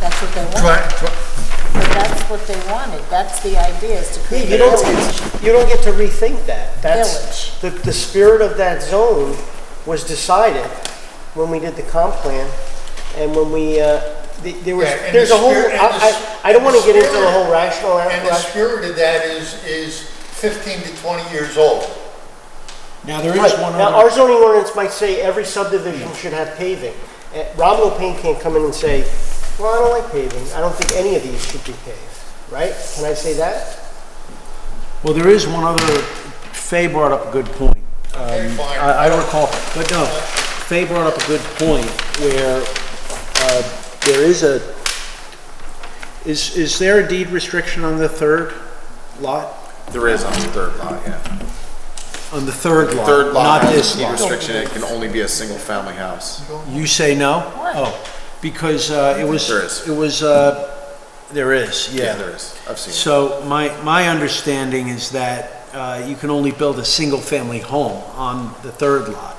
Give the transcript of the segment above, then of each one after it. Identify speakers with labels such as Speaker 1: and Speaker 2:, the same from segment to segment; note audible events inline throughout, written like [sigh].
Speaker 1: that's what they want,
Speaker 2: Try, try,
Speaker 1: but that's what they wanted, that's the idea, is to
Speaker 3: Yeah,
Speaker 1: create
Speaker 3: you
Speaker 1: a
Speaker 3: don't,
Speaker 1: village.
Speaker 3: you don't get to rethink that. That's, the, the spirit of that zone was decided when we did the comp plan and when we, uh, th- there was,
Speaker 2: Yeah, and
Speaker 3: there's
Speaker 2: the
Speaker 3: a whole,
Speaker 2: spirit- and the s-
Speaker 3: I, I, I don't wanna get into the
Speaker 2: spirit-
Speaker 3: whole rational.
Speaker 2: and the spirit of that is, is 15 to 20 years old.
Speaker 4: Now, there is
Speaker 3: Right.
Speaker 4: one
Speaker 3: Now, our
Speaker 4: other,
Speaker 3: zoning ordinance might say every subdivision should have paving. Uh, Rob Lopine can't come in and say, well, I don't like paving, I don't think any of these should be paved, right? Can I say that?
Speaker 4: well, there is one other, Fay brought up a good point. Um,
Speaker 2: Okay, fine.
Speaker 4: I, I recall, but no, Fay brought up a good point where, uh, there is a, is, is there a deed restriction on the third lot?
Speaker 5: There is on the third lot, yeah.
Speaker 4: On the third lot?
Speaker 5: Third
Speaker 4: Not
Speaker 5: lot has
Speaker 4: this
Speaker 5: a deed
Speaker 4: lot?
Speaker 5: restriction, it can only be a single-family house.
Speaker 4: You say no?
Speaker 1: Why?
Speaker 4: Oh, because uh, it was,
Speaker 5: There is.
Speaker 4: it was, uh, there is,
Speaker 5: Yeah,
Speaker 4: yeah.
Speaker 5: there is, I've seen it.
Speaker 4: So my, my understanding is that uh, you can only build a single-family home on the third lot.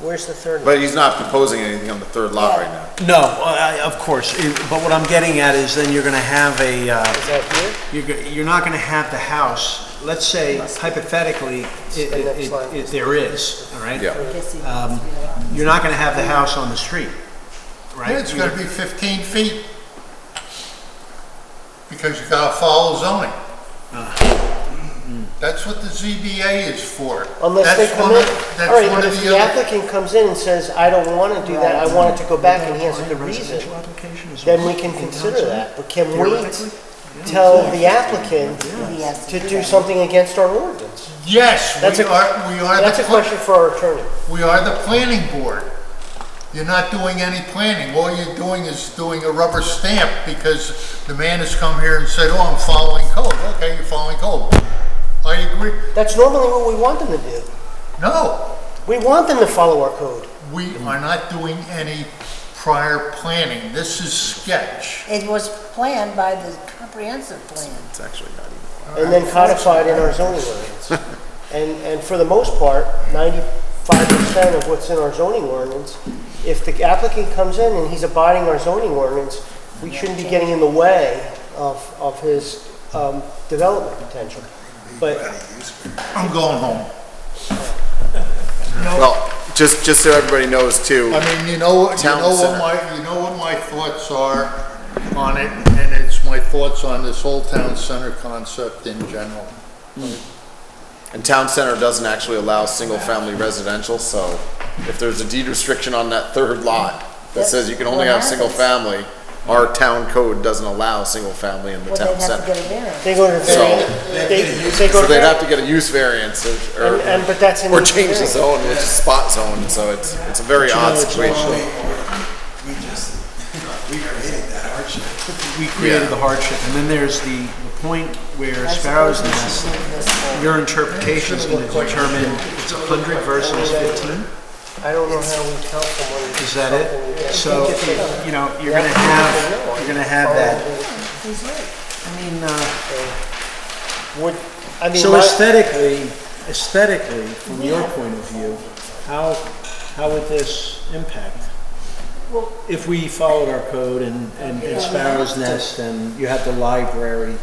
Speaker 3: Where's the third?
Speaker 5: But he's not proposing anything on the third lot right now.
Speaker 4: No, I- I- of course, it- but what I'm getting at is then you're going to have a, uh,
Speaker 3: Is that here?
Speaker 4: you're, go- you're not going to have the house, let's say hypothetically, it,
Speaker 3: The next
Speaker 4: it,
Speaker 3: slide.
Speaker 4: it, there is, all right?
Speaker 5: Yeah,
Speaker 4: Um, You're not going to have the house on the street, right?
Speaker 2: Yeah, It's gonna be 15 feet. Because you gotta follow zoning. That's what the ZBA is for.
Speaker 3: Unless they
Speaker 2: That's
Speaker 3: come
Speaker 2: one
Speaker 3: in,
Speaker 2: of- that's
Speaker 3: all right,
Speaker 2: one
Speaker 3: but
Speaker 2: of
Speaker 3: if
Speaker 2: the
Speaker 3: the
Speaker 2: other-
Speaker 3: applicant comes in and says, I don't want to do that, I want it to go back, and he has a good reason, then we can consider that, but can we tell the applicant to do something against our ordinance?
Speaker 2: Yes,
Speaker 3: That's
Speaker 2: we
Speaker 3: a-
Speaker 2: are, we are.
Speaker 3: That's
Speaker 2: the
Speaker 3: a
Speaker 2: pla-
Speaker 3: question for our attorney.
Speaker 2: We are the planning board. You're not doing any planning. All you're doing is doing a rubber stamp because the man has come here and said, oh, I'm following code. Okay, you're following code. I agree.
Speaker 3: That's normally what we want them to do.
Speaker 2: No,
Speaker 3: We want them to follow our code.
Speaker 2: we are not doing any prior planning. This is sketch.
Speaker 1: It was planned by the comprehensive plan.
Speaker 5: it's actually not even.
Speaker 3: and then codified in our zoning
Speaker 4: [laughs]
Speaker 3: ordinance. And, and for the most part, ninety-five percent of what's in our zoning ordinance, if the applicant comes in and he's abiding our zoning ordinance, we shouldn't be getting in the way of, of his, um, development potential. But
Speaker 2: I'm going home.
Speaker 5: Well, just, just so everybody knows too,
Speaker 2: I mean, you know, what- you
Speaker 5: Town
Speaker 2: know what
Speaker 5: center.
Speaker 2: my, you know what my thoughts are on it, and it's my thoughts on this whole town center concept in general.
Speaker 5: and town center doesn't actually allow single-family residential, so if there's a deed restriction on that third lot that says you can only have
Speaker 1: That's what
Speaker 5: single
Speaker 1: happens.
Speaker 5: family, our town code doesn't allow single family in the
Speaker 1: Well,
Speaker 5: town
Speaker 1: they'd have to
Speaker 5: center.
Speaker 1: get a variance.
Speaker 3: they go to the
Speaker 5: So-
Speaker 3: variance, they, they go
Speaker 5: So
Speaker 3: to
Speaker 5: they'd have
Speaker 3: variance.
Speaker 5: to get a use variance or-
Speaker 3: And,
Speaker 5: or,
Speaker 3: and, but that's in.
Speaker 5: or change the
Speaker 3: variance.
Speaker 5: zone, which is spot zone, so it's, it's a very odd situation.
Speaker 6: We just, we created that hardship.
Speaker 4: We created
Speaker 5: Yeah.
Speaker 4: the hardship, and then there's the, the point where
Speaker 1: I
Speaker 4: Sparrow's
Speaker 1: suppose we
Speaker 4: Nest,
Speaker 1: should leave this for-
Speaker 4: your interpretation is gonna determine it's hundred versus fifteen,
Speaker 3: I don't know how we tell someone.
Speaker 4: is that it? So, you know, you're gonna
Speaker 3: Yeah.
Speaker 4: have, you're gonna have that.
Speaker 1: He's right.
Speaker 4: I mean, uh,
Speaker 3: Would, I mean,
Speaker 4: so
Speaker 3: my,
Speaker 4: aesthetically, aesthetically, from your point of view, how, how would this impact? If we followed our code and, and and Sparrow's Nest and you had the library,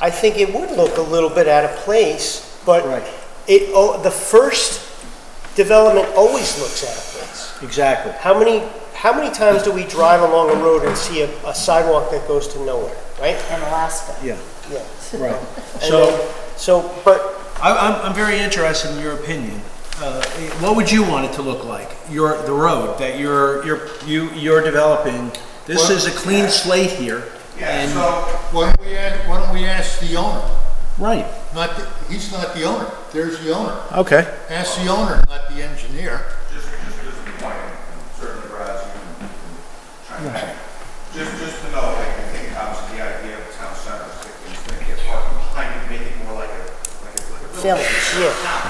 Speaker 3: I think it would look a little bit out of place, but
Speaker 4: right,
Speaker 3: it, oh, the first development always looks out of place.
Speaker 4: exactly.
Speaker 3: How many, how many times do we drive along a road and see a, a sidewalk that goes to nowhere, right?
Speaker 1: In Alaska.
Speaker 4: Yeah,
Speaker 3: Yeah.
Speaker 4: right.
Speaker 3: And
Speaker 4: So,
Speaker 3: then- So, but
Speaker 4: I, I'm, I'm very interested in your opinion. Uh, what would you want it to look like? Your, the road that you're, you're, you, you're developing. This is a clean slate here.
Speaker 6: Yeah,
Speaker 4: and-
Speaker 6: so
Speaker 2: Why don't we, ask- why don't we ask the owner?
Speaker 4: Right,
Speaker 2: Not, the- he's not the owner, there's the owner.
Speaker 4: okay.
Speaker 2: Ask the owner, not the engineer.
Speaker 6: just, just, just a point, and certainly Brad, you can chime in. Just, just to know, like, I think obviously the idea of town center, is that it's gonna get parking, kind of make it more like a, like a, like a
Speaker 1: Village,
Speaker 6: village.
Speaker 3: yeah.